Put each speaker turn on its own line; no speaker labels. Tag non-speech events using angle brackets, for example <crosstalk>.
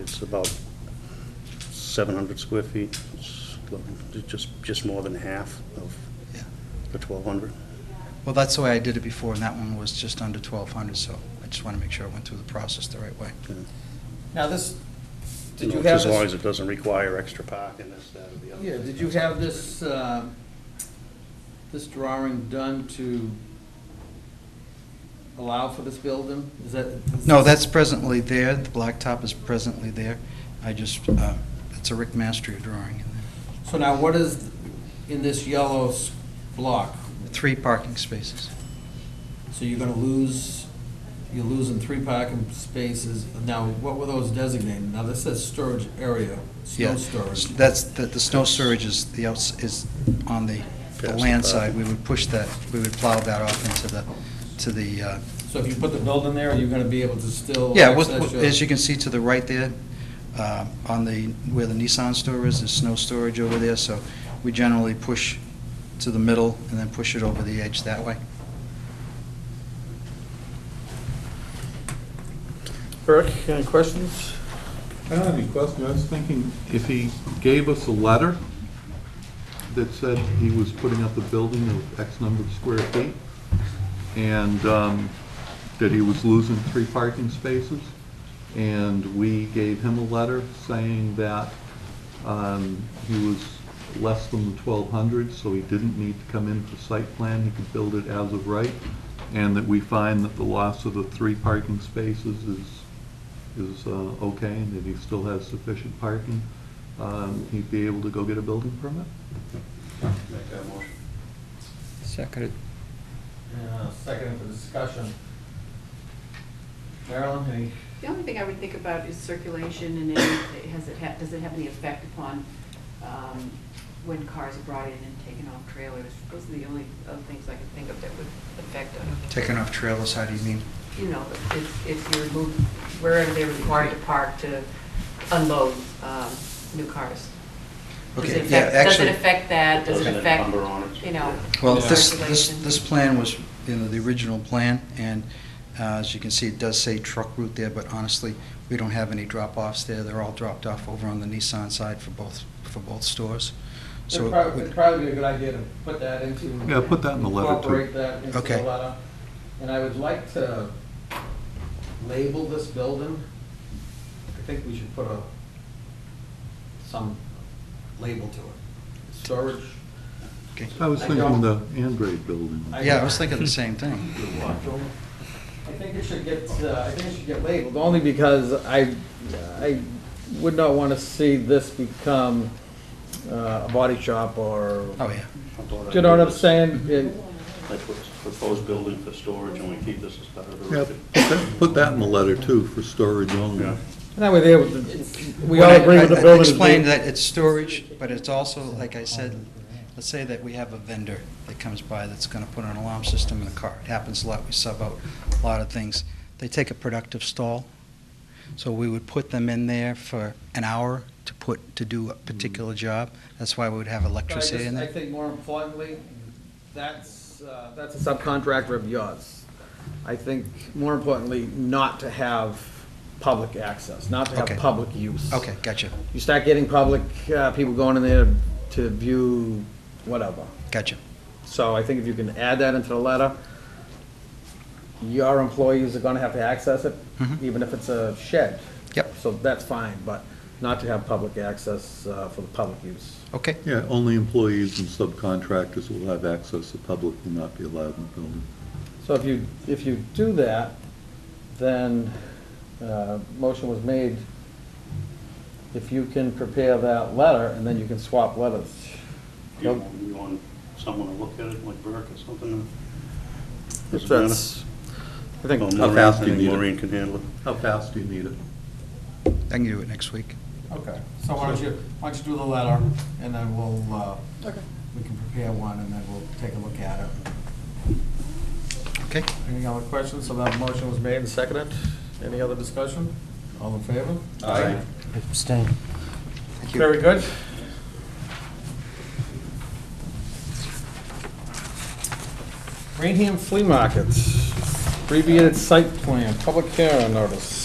It's about 700 square feet, It's just, just more than half of
Yeah.
the 1,200.
Well, that's the way I did it before, and that one was just under 1,200, so I just want to make sure I went through the process the right way.
yeah.
Now, this,
You
did you
know,
have
As long as
this,
it doesn't require extra parking, this, that, or the other.
yeah, did you have this, uh, this drawing done to allow for this building? Is that? is-
No, that's presently there, the blacktop is presently there. I just, uh, it's a Rick Mastria drawing.
So now, what is in this yellow s- block?
Three parking spaces.
So you're gonna lose, you're losing three parking spaces. Now, what were those designated? Now, this says storage area,
Yeah.
snow storage.
That's, the the snow surge is, the outs is on the the
Past the
land
property.
side. We would push that, we would plow that off into the, to the, uh,
So if you put the building there, you're gonna be able to still
yeah, what-
access
what-
your-
as you can see to the right there, uh, on the, where the Nissan store is, there's snow storage over there, so we generally push to the middle and then push it over the edge that way.
Eric, any questions?
I don't have any questions. I was thinking if he gave us a letter that said he was putting up a building of X number of square feet and um, that he was losing three parking spaces, and we gave him a letter saying that um, he was less than the 1,200, so he didn't need to come in for site plan, he could build it as of right, and that we find that the loss of the three parking spaces is is uh, okay and that he still has sufficient parking, um, he'd be able to go get a building permit?
Make that motion.
Seconded.
Yeah, uh, Second for discussion. Marilyn, any?
The only thing I would think about is circulation and any, has it, ha- does it have any effect upon um, when cars are brought in and taken off trailers? Those are the only other things I can think of that would affect, uh,
Taking off trailers, how do you mean?
you know, if, if you remove, wherever they're required to park to unload um, new cars. Does it
Okay, yeah,
affect- Does
actually-
it affect that? Does it
Doesn't
affect,
encumber on it.
you know?
Well, this, this,
circulation?
this plan was, you know, the original plan, and uh, as you can see, it does say truck route there, but honestly, we don't have any drop-offs there. They're all dropped off over on the Nissan side for both, for both stores. So,
It'd
it
probably,
would-
it'd probably be a good idea to put that into.
Yeah, put that in the letter, too.
Incorporate that into the
Okay.
letter. And I would like to label this building. I think we should put a, some label to it. Storage.
okay.
I was thinking the Andrade building.
<laughs> I-
yeah, I was thinking the same thing.
I think it should get, uh, I think it should get labeled, only because I, I would not want to see this become uh, a body shop or,
Oh, yeah.
I thought I'd
you know what
do
I'm
this.
saying? It-
That's what's proposed building for storage, and we keep this as part of the
Yeah,
record.
put that- put that in the letter too, for storage
Yeah.
only.
And that way there, we
Well,
all
I-
agree with the
I- I
building. is
Explained
being-
that it's storage, but it's also, like I said, let's say that we have a vendor that comes by that's gonna put an alarm system in a car. It happens a lot, we sub out a lot of things. They take a productive stall, so we would put them in there for an hour to put, to do a particular job. That's why we would have
But I just-
electricity in
I
there.
think more importantly, that's, uh, that's a subcontractor of yours. I think more importantly, not to have public access, not to have
Okay.
public use.
Okay, gotcha,
You start getting public, uh, people going in there to view whatever.
gotcha.
So I think if you can add that into the letter, your employees are gonna have to access it,
Mhm.
even if it's a shed.
Yep.
So that's fine, but not to have public access uh, for the public use.
Okay,
Yeah, only employees and subcontractors will have access, the public will not be allowed in the building.
So if you, if you do that, then, uh, motion was made, if you can prepare that letter, and then you can swap letters.
Do you want- you want someone to look at it, like Burke or something?
If
Doesn't matter.
that's, I
Well,
think,
Maureen-
fast do
I
you
think
need it?
Maureen can handle it.
How fast do you need it?
I can do it next week.
okay, so why don't you, why don't you do the letter, and then we'll, uh, we can prepare one, and then we'll take a look at it.
Okay,
Any other questions? So that motion was made and seconded. Any other discussion? All in favor?
Aye.
Abstain.
thank you.
Very good. Rainham Flea Market, abbreviated site plan, public hearing notice.